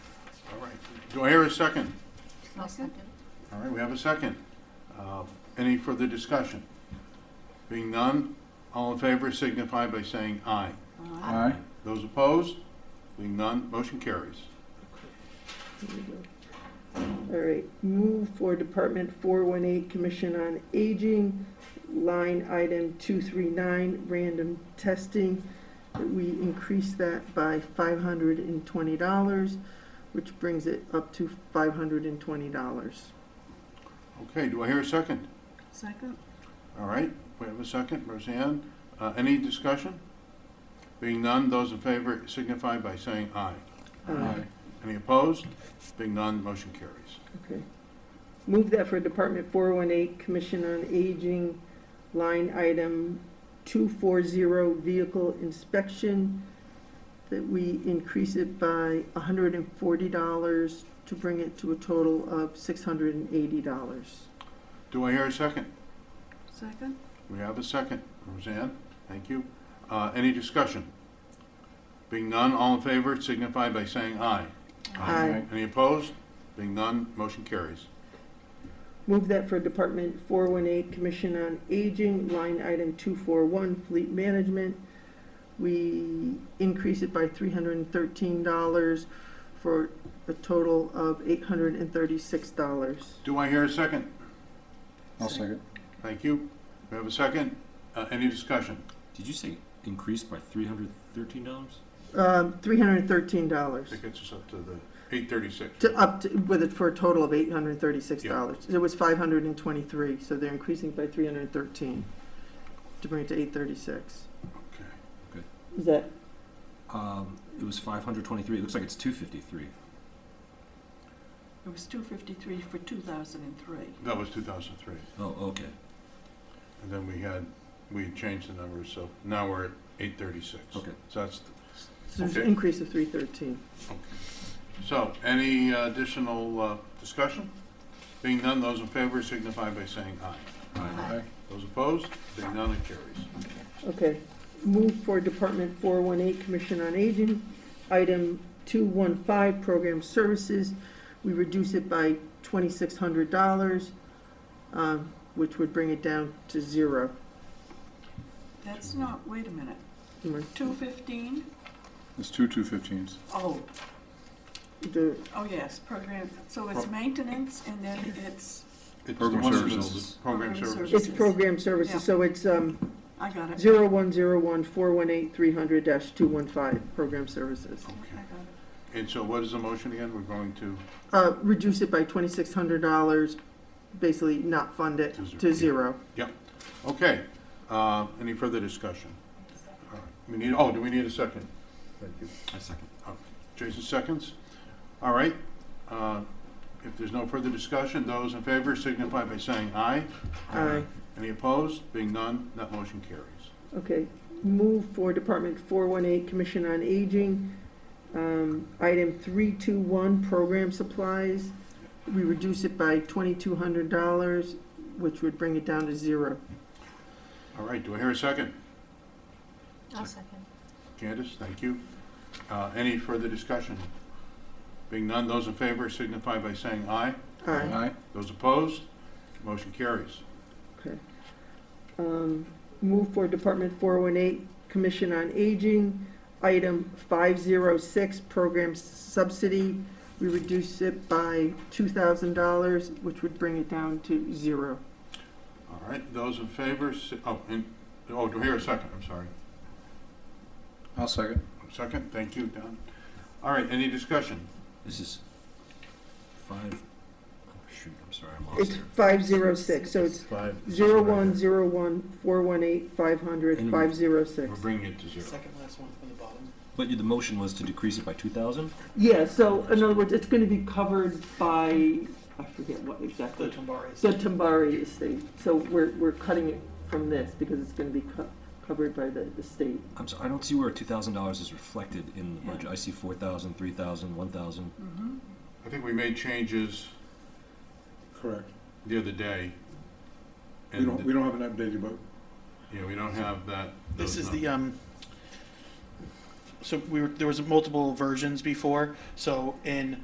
Do I hear a second? I'll second. All right, we have a second. Uh, Any further discussion? Being none, all in favor signify by saying aye. Aye. Those opposed? Being none, motion carries. There we go. All right, move for Department 418, Commission on Aging, line item 239, random testing. that We increase that by $520, which brings it up to $520. Okay, do I hear a second? Second? All right, we have a second. Roseanne, uh, any discussion? Being none, those in favor signify by saying aye. Uh, Any opposed? Being none, motion carries. Okay. Move that for Department 418, Commission on Aging, line item 240, Vehicle Inspection, that we increase it by $140 to bring it to a total of $680. Do I hear a second? Second? We have a second. Roseanne, thank you. Uh, Any discussion? Being none, all in favor signify by saying aye. Aye. Any opposed? Being none, motion carries. Move that for Department 418, Commission on Aging, line item 241, Fleet Management. We increase it by $313 for a total of $836. Do I hear a second? I'll second. Thank you. We have a second. Uh, Any discussion? Did you say increased by three hundred thirteen dollars? Um, That $313 gets us up to the 836. to uh, up, to- with it for a total of $836. It was 523, so they're increasing by 313 to bring it to 836. Okay. Is that, Um, it was five hundred twenty-three. It looks like it's two fifty-three. It was two fifty-three for two thousand and three. That was 2003. Oh, okay. And then we had, we had changed the numbers, so now we're at 836. Okay. So that's, so there's an Okay. increase of 313. so any uh, additional uh, discussion? Being none, those in favor signify by saying aye. Aye. Those opposed, being none, it carries. Okay, move for Department 418, Commission on Aging, item 215, Program Services. We reduce it by $2,600, um, which would bring it down to zero. That's not, wait a minute, two fifteen? It's two two fifteens. Oh, The- oh yes, program, so it's maintenance and then It's it's, the Program one that's- services. Program Program services. It's Program Services, so it's um, I got it. 0101-418-300-215, Program Services. I Okay. got it. And so what is the motion again? We're going to, Uh, Reduce it by $2,600, basically not fund it, To zero. to zero. okay, uh, any further discussion? All right. We need, oh, do we need a second? Thank you. I second. Jason seconds. All right. uh, If there's no further discussion, those in favor signify by saying aye. Aye. Any opposed? Being none, that motion carries. Okay, move for Department 418, Commission on Aging, um, item 321, program supplies. We reduce it by $2,200, which would bring it down to zero. All right, do I hear a second? I'll second. Candace, thank you. Uh, Any further discussion? Being none, those in favor signify by saying aye. Aye. Those opposed? Motion carries. Okay. Um, Move for Department 418, Commission on Aging, item 506, program subsidy. We reduce it by $2,000, which would bring it down to zero. All right, those in favor, si- oh, and, oh, do I hear a second? I'm sorry. I'll second. Second, thank you, Don. All right, any discussion? This is five. Oh shoot! I'm sorry. I'm lost It's here. 506, so it's Five. Zero one zero one four one eight five hundred five zero We're six. bringing it to zero. Second last one from the bottom. But the motion was to decrease it by two thousand. Yeah, so in other words, it's gonna be covered by, I forget what The exactly, Tambari is the Tambari estate. So we're, we're cutting it from this because it's gonna be co- covered by the estate. I'm sorry. I don't see where two thousand dollars is reflected in the budget. I see four thousand, three thousand, one thousand. Mm-hmm, I think we made changes Correct. the other day. We don't, and- we don't have an updated book. Yeah, we don't have that. This those is the numbers. um. So we were there was multiple versions before. So in